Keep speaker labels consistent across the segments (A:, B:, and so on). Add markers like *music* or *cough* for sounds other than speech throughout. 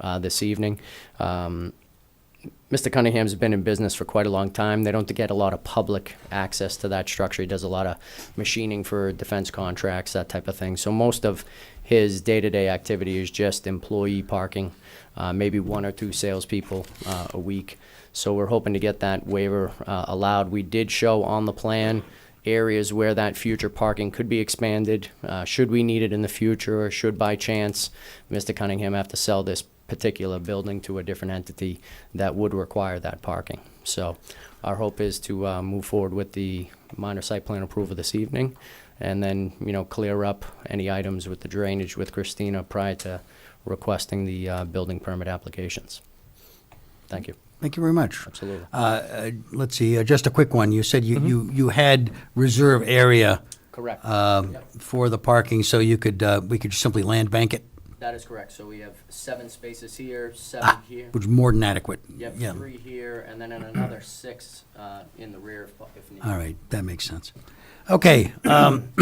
A: uh, this evening. Um, Mr. Cunningham's been in business for quite a long time. They don't get a lot of public access to that structure. He does a lot of machining for defense contracts, that type of thing. So most of his day-to-day activity is just employee parking, uh, maybe one or two salespeople uh, a week. So we're hoping to get that waiver uh, allowed. We did show on the plan areas where that future parking could be expanded, uh, should we need it in the future, or should by chance Mr. Cunningham have to sell this particular building to a different entity that would require that parking. So our hope is to uh, move forward with the minor site plan approval this evening, and then, you know, clear up any items with the drainage with Christina prior to requesting the uh, building permit applications. Thank you.
B: Thank you very much.
A: Absolutely.
B: Uh, Let's see, uh, just a quick one. You said you, you, you had reserve area
A: Correct.
B: um, for the parking, so you could, uh, we could simply land bank it,
A: That is correct. So we have seven spaces here, seven here.
B: which is more than adequate.
A: You
B: Yeah.
A: have three here, and then another six uh, in the rear if- if needed.
B: All right, that makes sense. Okay, um,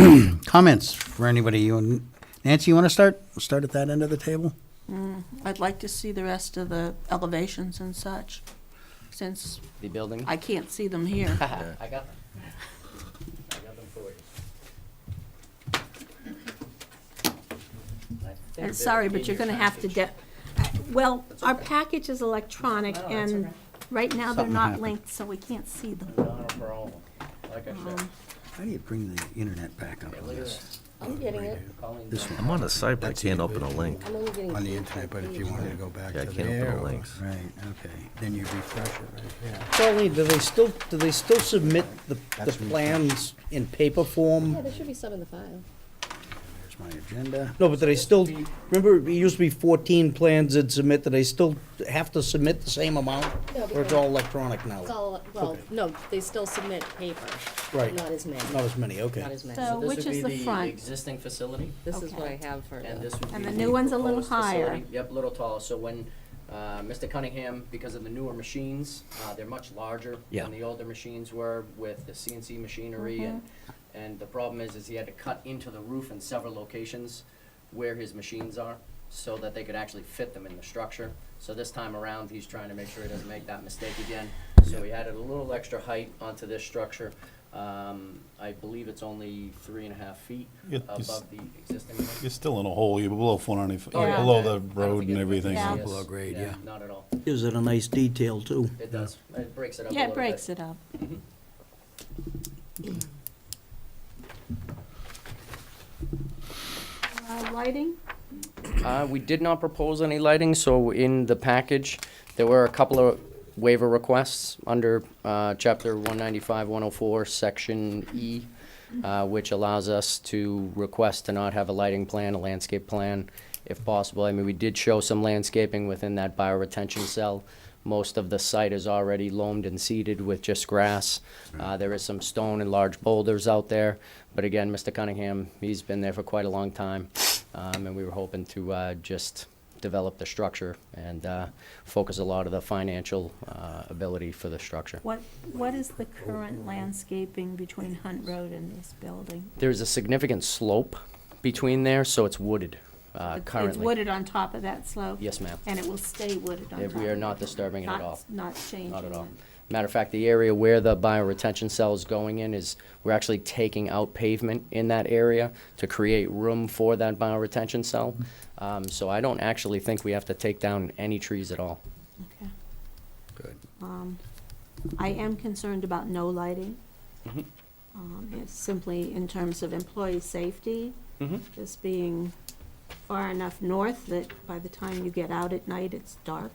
B: *clears throat* comments for anybody? You Nancy, you want to start? We'll start at that end of the table?
C: I'd like to see the rest of the elevations and such, since
A: The building?
C: I can't see them here.
A: *laughs* I got them. I got them for you. I think they're
C: And sorry, but
A: in
C: you're
A: your
C: gonna have to
A: package.
C: de, well, our package is electronic,
A: No, that's
C: and
A: okay.
C: right now they're
B: Something
C: not
B: happened.
C: linked, so we can't see them.
A: Not a problem. Like I
C: Um,
A: said,
B: How do you bring the internet back up on this?
D: I'm getting it.
A: Colleen.
B: This
E: I'm on a site, but I can't open a link.
D: I'm only getting.
B: On the internet, but if you wanted to go back
E: Yeah, I
B: to
E: can't open
B: there.
E: the
B: or-
E: links.
B: Right, okay. Then you refresh it right here.
F: Charlene, do they still, do they still submit the, the
B: That's me.
F: plans in paper
D: Yeah,
F: form?
D: there should be some in the file.
B: There's my agenda.
F: No, but do they still, remember, it used to be fourteen plans they'd submit, do they still have to submit the same amount?
D: No,
F: Or it's
D: because-
F: all electronic now?
D: It's all, well, no, they still submit paper.
F: Right.
D: Not as many.
F: Not as many, okay.
D: Not as many.
C: So-
D: So
C: Which
A: This would
C: is
A: be
C: the front?
A: Existing facility.
D: This is what I
C: Okay.
D: have for
A: And
D: the,
A: this would
C: And
A: be
C: the new one's a little
A: proposed facility.
C: higher.
A: Yep, little taller, so when, uh, Mr. Cunningham, because of the newer machines, uh, they're much larger
F: Yeah.
A: than the older machines were with the CNC
C: Mm-hmm.
A: machinery and, and the problem is, is he had to cut into the roof in several locations where his machines are, so that they could actually fit them in the structure. So this time around, he's trying to make sure he doesn't make that mistake again, so he added a little extra height onto this structure. Um, I believe it's only three and a half feet
G: It is-
A: above the existing one.
G: You're still in a hole, you're below four ninety,
A: Oh, yeah. Yeah.
G: below the road and everything.
C: Yeah.
A: Yes.
B: Below grade, yeah.
A: Not at all.
F: Gives it a nice detail too.
A: It does. It breaks it up a
C: Yeah,
A: little
C: it
A: bit.
C: breaks it up. Uh, Lighting?
A: Uh, we did not propose any lighting, so in the package, there were a couple of waiver requests under, uh, chapter one ninety-five, one oh four, section E, uh, which allows us to request to not have a lighting plan, a landscape plan, if possible. I mean, we did show some landscaping within that bioretention cell. Most of the site is already loamed and seeded with just grass. Uh, there is some stone and large boulders out there. But again, Mr. Cunningham, he's been there for quite a long time. Um, and we were hoping to, uh, just develop the structure and, uh, focus a lot of the financial, uh, ability for the structure.
C: What, what is the current landscaping between Hunt Road and this building?
A: There's a significant slope between there, so it's wooded, uh,
C: It's-
A: currently.
C: It's wooded on top of that slope?
A: Yes, ma'am.
C: And it will stay wooded on
A: Yeah,
C: top?
A: we are
C: of
A: not
C: it?
A: disturbing it at
C: Not-
A: all.
C: Not changing
A: Not at all.
C: it.
A: Matter of fact, the area where the bioretention cell is going in is, we're actually taking out pavement in that area to create room for that bioretention cell. Um, so I don't actually think we have to take down any trees at all.
C: Okay.
B: Good.
C: Um, I am concerned about no lighting.
A: Mhm.
C: Um, It's simply in terms of employee safety, this being far enough north that by the time you get out at night, it's dark.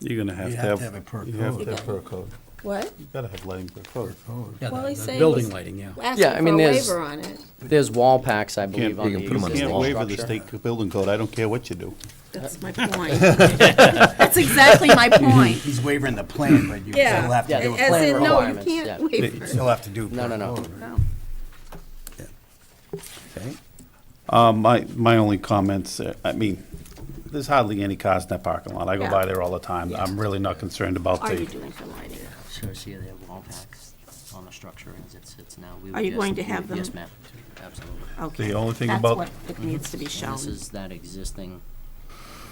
G: You're gonna have
B: You
G: to
B: have
G: have.
B: to have it per
G: You have
B: code.
G: to have per code.
C: What?
G: You gotta have lighting per code.
B: Yeah,
C: Well,
B: the-
C: he's
B: the
C: saying
B: Building
C: he's-
B: lighting, yeah.
A: Yeah, I
D: Asking for
A: mean,
C: a
A: there's-
C: waiver on it.
A: There's wall packs, I believe,
G: Can't-
A: on the
E: you can put 'em on the
A: existing
G: Can't
E: wall.
G: waiver the
A: structure.
G: state building code, I don't care what you do.
C: That's my
B: *laughs*
C: point. That's exactly my point.
B: He's wavering the plan, but you
C: Yeah.
B: still have to do a
A: Yeah,
C: As
B: plan
C: in, no, you
A: requirements, yeah.
C: can't
B: You
C: waiver.
B: still have to do.
A: No, no, no.
B: per code, right?
C: No.
B: Okay.
G: Um, my, my only comments, uh, I mean, there's hardly any cars in that parking lot, I go
C: Yeah.
G: by there all the time, I'm really not concerned about
C: Are you
G: the.
C: doing for lighting?
A: So see, they have wall packs on the structure as it sits now. We
C: Are
A: would
C: you
A: just-
C: going to
A: we
C: have
A: would-
C: them?
A: Yes, ma'am, absolutely.
C: Okay.
G: only thing about-
C: That's what it needs to be
A: And
C: shown.
A: This is that existing